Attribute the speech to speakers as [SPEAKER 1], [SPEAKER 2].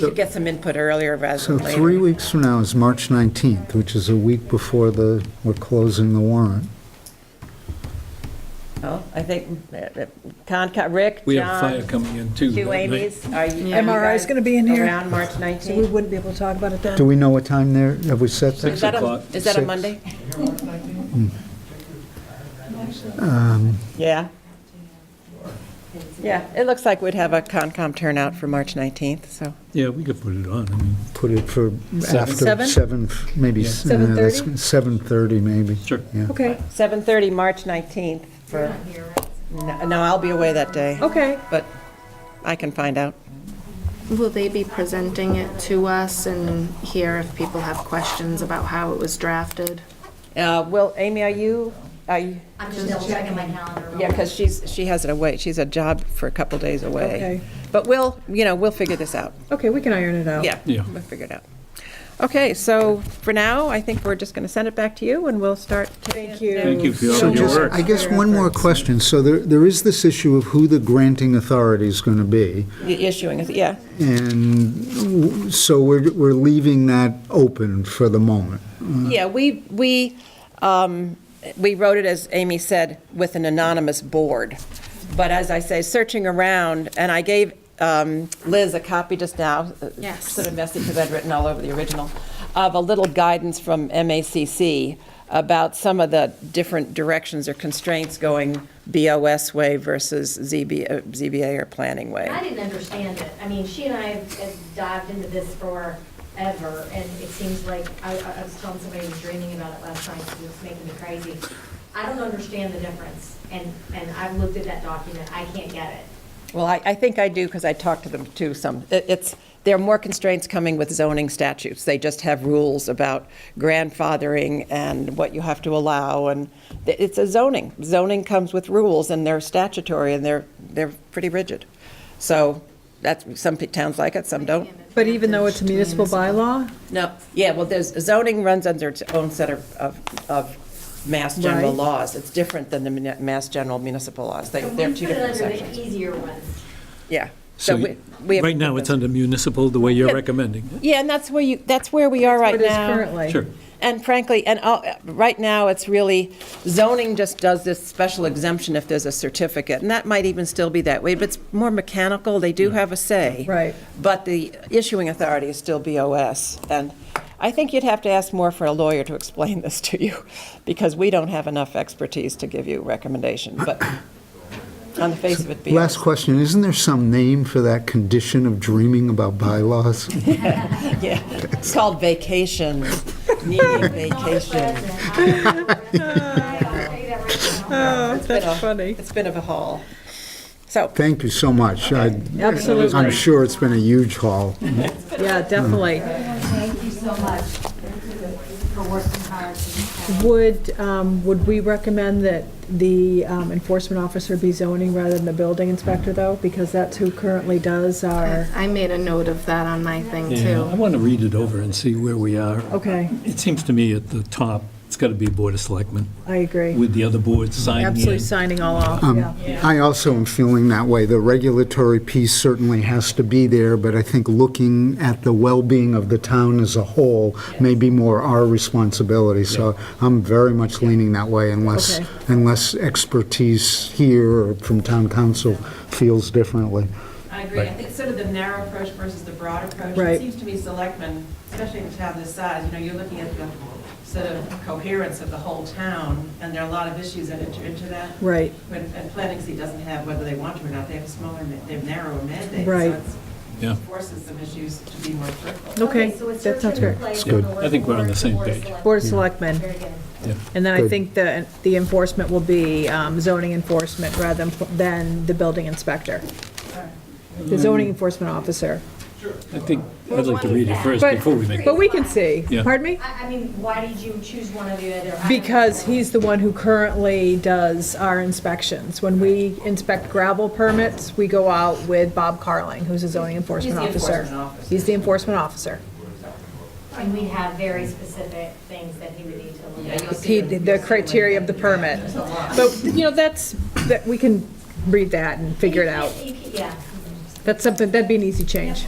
[SPEAKER 1] You could get some input earlier rather
[SPEAKER 2] So
[SPEAKER 1] than later.
[SPEAKER 2] three weeks from now is March 19th, which is a week before the, we're closing the warrant.
[SPEAKER 3] Well, I think, uh, uh, Concom, Rick,
[SPEAKER 4] We have
[SPEAKER 3] John,
[SPEAKER 4] fire coming in too.
[SPEAKER 3] two
[SPEAKER 4] that night.
[SPEAKER 3] Amy's, are you? are you
[SPEAKER 5] MRI is
[SPEAKER 3] guys
[SPEAKER 5] gonna be in here.
[SPEAKER 3] Around March
[SPEAKER 5] So we
[SPEAKER 3] 19th?
[SPEAKER 5] wouldn't be able to talk about it
[SPEAKER 2] Do
[SPEAKER 5] then?
[SPEAKER 2] we know what time there, have we set
[SPEAKER 4] Six
[SPEAKER 2] that?
[SPEAKER 3] Is that a,
[SPEAKER 4] o'clock.
[SPEAKER 3] is that a
[SPEAKER 2] Six.
[SPEAKER 3] Monday?
[SPEAKER 2] Um,
[SPEAKER 3] Yeah. Yeah, it looks like we'd have a Concom turnout for March 19th, so.
[SPEAKER 4] Yeah, we could put it on. I mean,
[SPEAKER 2] Put it for after
[SPEAKER 3] Seven?
[SPEAKER 2] seven, maybe.
[SPEAKER 4] Yeah.
[SPEAKER 2] s- uh, that's-
[SPEAKER 5] 7:30?
[SPEAKER 2] 7:30, maybe.
[SPEAKER 4] Sure.
[SPEAKER 2] Yeah.
[SPEAKER 5] Okay,
[SPEAKER 3] 7:30, March 19th for, no, no, I'll be away that day,
[SPEAKER 5] okay.
[SPEAKER 3] but I can find out.
[SPEAKER 6] Will they be presenting it to us and hear if people have questions about how it was drafted?
[SPEAKER 3] Uh, Will, Amy, are you, are you,
[SPEAKER 7] I'm just double checking my calendar. real
[SPEAKER 3] yeah, because she's, she has it away, she's a job for a couple days away.
[SPEAKER 5] Okay. Oh.
[SPEAKER 3] But we'll, you know, we'll figure this out.
[SPEAKER 5] Okay, we can iron it out.
[SPEAKER 3] Yeah.
[SPEAKER 4] Yeah.
[SPEAKER 3] We'll figure it out. Okay, so for now, I think we're just going to send it back to you, and we'll start. Thank
[SPEAKER 5] you.
[SPEAKER 4] Thank you for
[SPEAKER 2] So
[SPEAKER 4] all your
[SPEAKER 2] just,
[SPEAKER 4] work.
[SPEAKER 2] I guess one more question. So there, there is this issue of who the granting authority is going to be.
[SPEAKER 3] Issuing, it, yeah.
[SPEAKER 2] And w- so we're, we're leaving that open for the moment.
[SPEAKER 3] Yeah, we, we, um, we wrote it, as Amy said, with an anonymous board. But as I say, searching around, and I gave um, Liz a copy just now. uh,
[SPEAKER 6] Yes.
[SPEAKER 3] Sort of messy, because I'd written all over the original, of a little guidance from MACC about some of the different directions or constraints going BOS way versus ZB uh, ZBA or planning way.
[SPEAKER 7] quick. I didn't understand it. I mean, she and I have dived into this forever, and it seems like, I, I was telling somebody who was dreaming about it last night, it was making me crazy. I don't understand the difference, and, and I've looked at that document, I can't get it.
[SPEAKER 3] Well, I, I think I do, because I talked to them too some. It- It's, there are more constraints coming with zoning statutes. They just have rules about grandfathering and what you have to allow, and th- it's a zoning. Zoning comes with rules, and they're statutory, and they're, they're pretty rigid. So that's, some pe- towns like it, some don't.
[SPEAKER 5] But even though it's a municipal bylaw,
[SPEAKER 3] No, yeah, well, there's, zoning runs under its own set of, of- of mass general
[SPEAKER 5] Right.
[SPEAKER 3] laws. It's different than the muni- mass general municipal laws. They-
[SPEAKER 7] So we
[SPEAKER 3] They're
[SPEAKER 7] put
[SPEAKER 3] two
[SPEAKER 7] it
[SPEAKER 3] different
[SPEAKER 7] under
[SPEAKER 3] sections.
[SPEAKER 7] the E easier ones.
[SPEAKER 3] Yeah.
[SPEAKER 4] So
[SPEAKER 3] we- we have-
[SPEAKER 4] right now, it's under municipal, the way you're recommending.
[SPEAKER 3] Yeah, and that's where you, that's where we are right
[SPEAKER 5] it is
[SPEAKER 3] now.
[SPEAKER 5] currently.
[SPEAKER 4] Sure.
[SPEAKER 3] And frankly, and all- right now, it's really, zoning just does this special exemption if there's a certificate, and that might even still be that way, but it's more mechanical, they do have a say.
[SPEAKER 5] Right.
[SPEAKER 3] But the issuing authority is still BOS, and I think you'd have to ask more for a lawyer to explain this to you, because we don't have enough expertise to give you recommendation, but on the face of it, BOS.
[SPEAKER 2] Last question, isn't there some name for that condition of dreaming about bylaws?
[SPEAKER 3] Yeah, it's called vacation, needing vacation.
[SPEAKER 5] Uh,
[SPEAKER 7] Vacation.
[SPEAKER 3] That's
[SPEAKER 5] Oh, funny.
[SPEAKER 3] It's been of a haul. So,
[SPEAKER 2] Thank you so much. I-
[SPEAKER 5] Absolutely.
[SPEAKER 2] I'm sure it's been a huge haul.
[SPEAKER 5] Yeah, definitely.
[SPEAKER 7] Thank you so much for working hard.
[SPEAKER 5] Would, um, would we recommend that the um, enforcement officer be zoning rather than the building inspector, though? Because that's who currently does our,
[SPEAKER 6] I made a note of that on my thing
[SPEAKER 4] Yeah, I
[SPEAKER 6] too.
[SPEAKER 4] want to read it over and see where we are.
[SPEAKER 5] okay,
[SPEAKER 4] It seems to me at the top, it's got to be Board of Selectmen
[SPEAKER 5] I agree.
[SPEAKER 4] with the other boards signing
[SPEAKER 5] Absolutely
[SPEAKER 4] in.
[SPEAKER 5] signing all off,
[SPEAKER 2] Um,
[SPEAKER 5] yeah.
[SPEAKER 2] I also am feeling that way. The regulatory piece certainly has to be there, but I think looking at the well-being of the town as a whole may be more our responsibility. So I'm very much leaning that way unless,
[SPEAKER 5] Okay.
[SPEAKER 2] unless expertise here or from town council feels differently.
[SPEAKER 8] I agree. I think sort of the narrow approach versus the broad approach.
[SPEAKER 5] Right.
[SPEAKER 8] It seems to me selectmen, especially in a town this size, you know, you're looking at the sort of coherence of the whole town, and there are a lot of issues that enter into that.
[SPEAKER 5] Right.
[SPEAKER 8] But- And planning C doesn't have, whether they want to or not, they have a smaller, ma- they have narrower mandate.
[SPEAKER 5] Right.
[SPEAKER 8] So
[SPEAKER 4] Yeah.
[SPEAKER 8] it forces some issues to be more critical.
[SPEAKER 5] Okay, that sounds great.
[SPEAKER 2] good.
[SPEAKER 4] I think we're on the same page.
[SPEAKER 5] Board of Selectmen.
[SPEAKER 7] Very good.
[SPEAKER 5] And then I
[SPEAKER 2] Good.
[SPEAKER 5] think the, the enforcement will be um, zoning enforcement rather than, than the building inspector.
[SPEAKER 4] Mm.
[SPEAKER 5] The zoning enforcement officer.
[SPEAKER 4] I think, I'd like to read it first before we make,
[SPEAKER 5] But we can see.
[SPEAKER 4] Yeah.
[SPEAKER 5] Pardon me?
[SPEAKER 7] I, I mean, why did you choose one or the other? I don't
[SPEAKER 5] Because
[SPEAKER 7] know.
[SPEAKER 5] he's the one who currently does our inspections. When we inspect gravel permits, we go out with Bob Carling, who's a zoning enforcement
[SPEAKER 8] He's the
[SPEAKER 5] officer.
[SPEAKER 8] enforcement officer.
[SPEAKER 5] He's the enforcement officer.
[SPEAKER 7] And we have very specific things that he would need to look at.
[SPEAKER 5] He, the criteria of the permit. But, you know, that's, that, we can read that and figure it out.
[SPEAKER 7] You can't- you can't- Yeah.
[SPEAKER 5] That's something, that'd be an easy change.